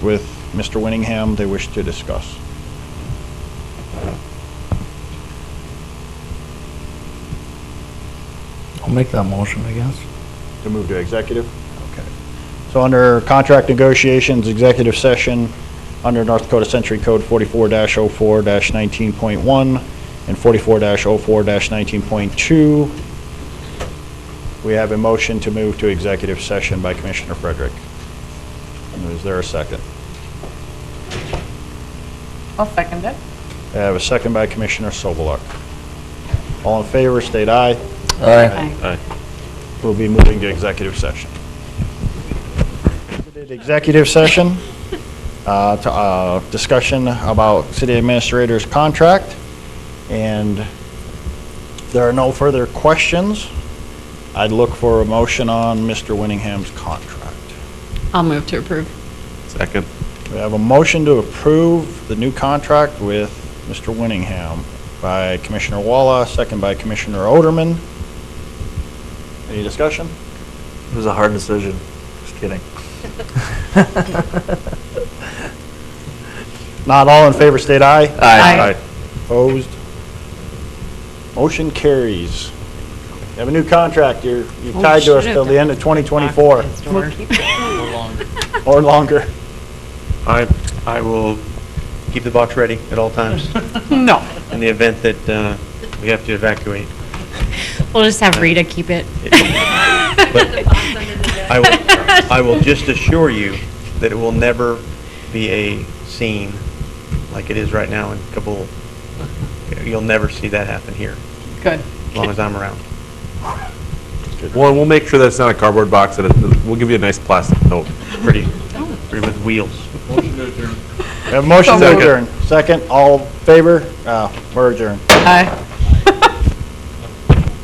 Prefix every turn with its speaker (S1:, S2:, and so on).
S1: with Mr. Winningham they wish to discuss.
S2: I'll make that motion, I guess.
S1: To move to executive? Okay. So under contract negotiations, executive session, under North Dakota Century Code 44-04-19.1 and 44-04-19.2, we have a motion to move to executive session by Commissioner Frederick. Is there a second?
S3: I'll second it.
S1: I have a second by Commissioner Sobeluk. All in favor, state aye.
S3: Aye.
S1: We'll be moving to executive session. Executive session, uh, to, uh, discussion about city administrator's contract, and there are no further questions. I'd look for a motion on Mr. Winningham's contract.
S4: I'll move to approve.
S5: Second.
S1: We have a motion to approve the new contract with Mr. Winningham by Commissioner Walla, second by Commissioner Oderman. Any discussion?
S5: It was a hard decision. Just kidding.
S1: Not all in favor, state aye.
S3: Aye. Aye.
S1: Opposed? Motion carries. You have a new contract, you're, you're
S4: Oh,
S1: tied to us
S4: should've
S1: till the end of 2024 or longer.
S6: I, I will keep the box ready at all times
S3: No.
S6: in the event that uh, we have to evacuate. Uh,
S4: We'll just have Rita keep it.
S6: I will, I will just assure you that it will never be a scene like it is right now in Kabul. You'll never see that happen here,
S3: Good.
S6: as long as I'm around.
S5: Well, and we'll make sure that it's not a cardboard box, that it, we'll give you a nice plastic note.
S6: Pretty, pretty with wheels.
S1: We have a motion to
S3: Second.
S1: adjourn. Second, all in favor, uh, we're adjourned.
S3: Aye.